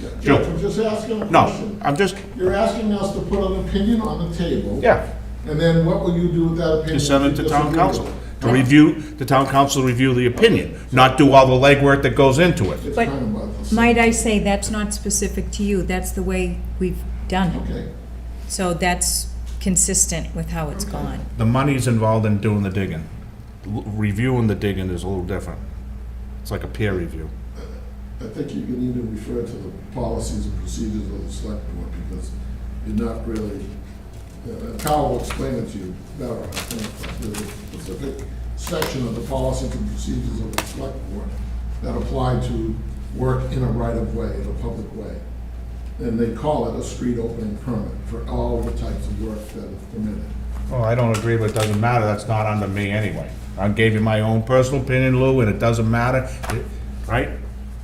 Joe. Judge, I'm just asking a No, question. I'm just, You're asking us to put an opinion on the table. yeah, And then what will you do with that opinion? to send it if you to town disagree with council. it? To review, the town council review the opinion, not do all the legwork that goes into it. It's But kind of about the same. Might I say, that's not specific to you, that's the way we've done it. Okay, So that's consistent with how it's gone. The money's involved in doing the digging. L- Reviewing the digging is a little different. It's like a peer review. I think you can either refer to the policies and procedures of the select board because you're not really, uh, Kyle will explain it to you better, I think. but There's a specific section of the policies and procedures of the select board that apply to work in a right-of-way, in a public way. And they call it a street opening permit for all the types of work that is permitted. Well, Oh, I don't agree, but it doesn't matter, that's not under me anyway. I gave you my own personal opinion, Lou, and it doesn't matter, It- right?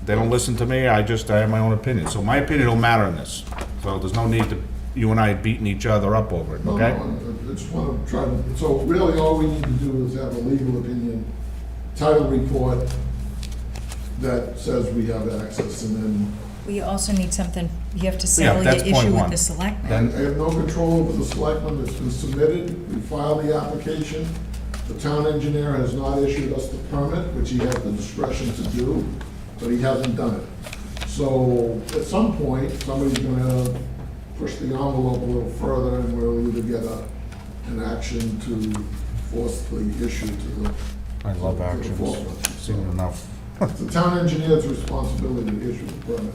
They don't listen to me, I just, I have my own opinion, so my opinion don't matter in this. So there's no need to, you and I beating each other up over it, Oh, No, okay? no, I- I just want to try to, so really all we need to do is have a legal opinion, title report that says we have access and then We also need something, you have to Yeah, settle your that's point issue one. with the selectmen. Then- I have no control over the selectmen that's been submitted. We filed the application. The town engineer has not issued us the permit, which he had the discretion to do, but he hasn't done it. So at some point, somebody's gonna push the envelope a little further and we'll either get a, an action to force the issue to the. I love to the actions, forefront. seen enough. It's the town engineer's responsibility to issue the permit.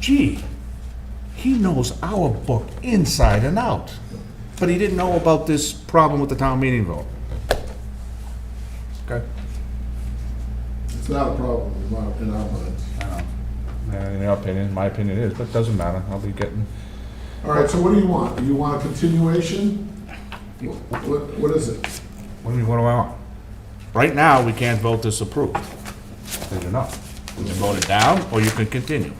Gee, he knows our book inside and out, but he didn't know about this problem with the town meeting vote. Okay? It's not a problem in our, in our minds. Uh, In your opinion, my opinion is, but it doesn't matter, I'll be getting All right, so what do you want? Do you want a continuation? Wh- What, what is it? What do you mean, what do I want? Right now, we can't vote this approved. There's enough. You can vote it down, or you can continue.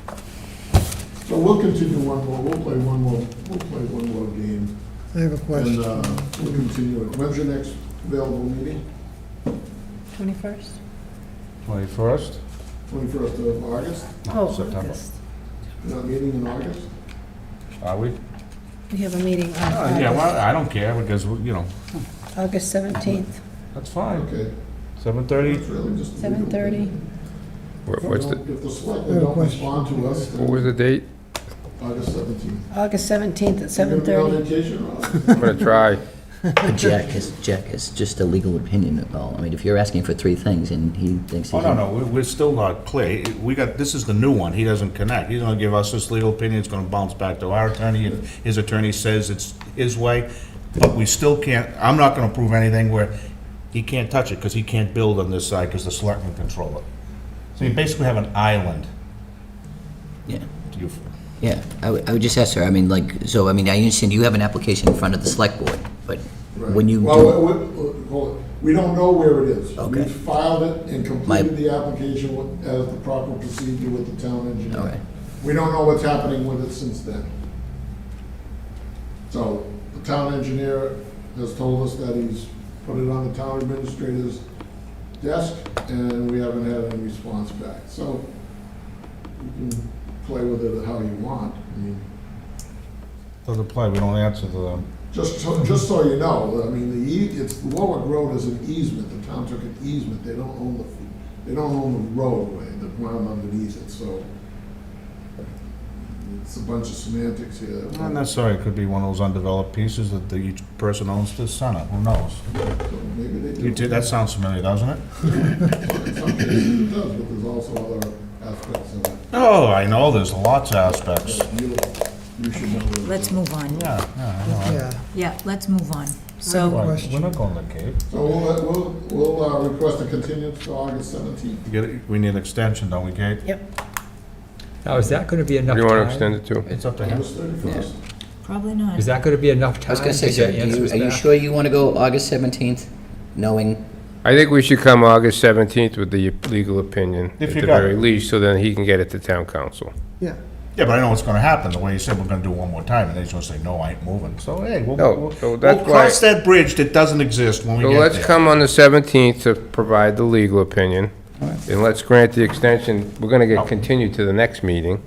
So we'll continue one more, we'll play one more, we'll play one more game. I have a And, question. uh, we'll continue it. When's your next available meeting? Twenty-first? Twenty-first? Twenty-first of August? Oh, September. August. You're not meeting in August? Are we? We have a meeting on Uh, Yeah, well, August I don't care, because, you know, August 17th, that's fine. Okay, Seven thirty? it's really just. a legal 7:30. thing. What- If What's don't- the, If the I selectmen have a don't question. respond to us, what was then the date? August seventeenth. August 17th at You gonna 7:30. be on vacation or I'm gonna try. But Jack has, Jack has just a legal opinion at all. I mean, if you're asking for three things and he thinks he's... Oh, no, no, we- we're still not clear. We got, this is the new one, he doesn't connect. He's gonna give us his legal opinion, it's gonna bounce back to our attorney, and his attorney says it's his way, but we still can't, I'm not gonna prove anything where he can't touch it, because he can't build on this side, because the selectmen control it. So you basically have an island. Yeah, Do you- yeah. I would, I would just ask her, I mean, like, so, I mean, I understand you have an application in front of the select board, but Right. when you Well, do... we- we- hold it. we don't know where it is. Okay. We filed it and completed My- the application with- as the proper procedure with the town All engineer. right. We don't know what's happening with it since then. So the town engineer has told us that he's put it on the town administrator's desk, and we haven't had any response back. So you can play with it how you want. I mean, Doesn't apply, we don't answer to them. just so, just so you know, I mean, the, ea- it's, Warwick Road is an easement, the town took an easement, they don't own the, they don't own the roadway, the ground underneath it, so. It's a bunch of semantics here. Not necessarily, it could be one of those undeveloped pieces that the- each person owns to the center, who knows? So Maybe they do. You did, that sounds familiar, doesn't it? In some cases it does, but there's also other aspects of it. Oh, I know, there's lots of aspects. You, you should know. what it Let's is. move on. Yeah, yeah, I know. Yeah, Yeah, let's move on. Why, So, We're not going to the Cape. So we'll, let- we'll, we'll uh, request a continuance to August seventeenth. You get it- We need an extension, don't we, Kate? Now, is that going to be enough What do time? you wanna extend it to? It's up to him. August thirty-first. probably not. Is that going to be enough I time was to gonna say, sir, get do you- answers are you back? sure you want to go August 17th, knowing... I think we should come August 17th with the legal opinion, If at you the got very it. least, so then he can get it to town council. yeah. Yeah, but I know what's gonna happen, the way you said we're gonna do it one more time, and they're just gonna say, no, I ain't moving. So, hey, we'll, No, we'll, so we'll that's why- cross that bridge that doesn't exist when we So get there. let's come on the 17th to provide the legal opinion, and let's grant the extension. We're gonna get continued to the next meeting.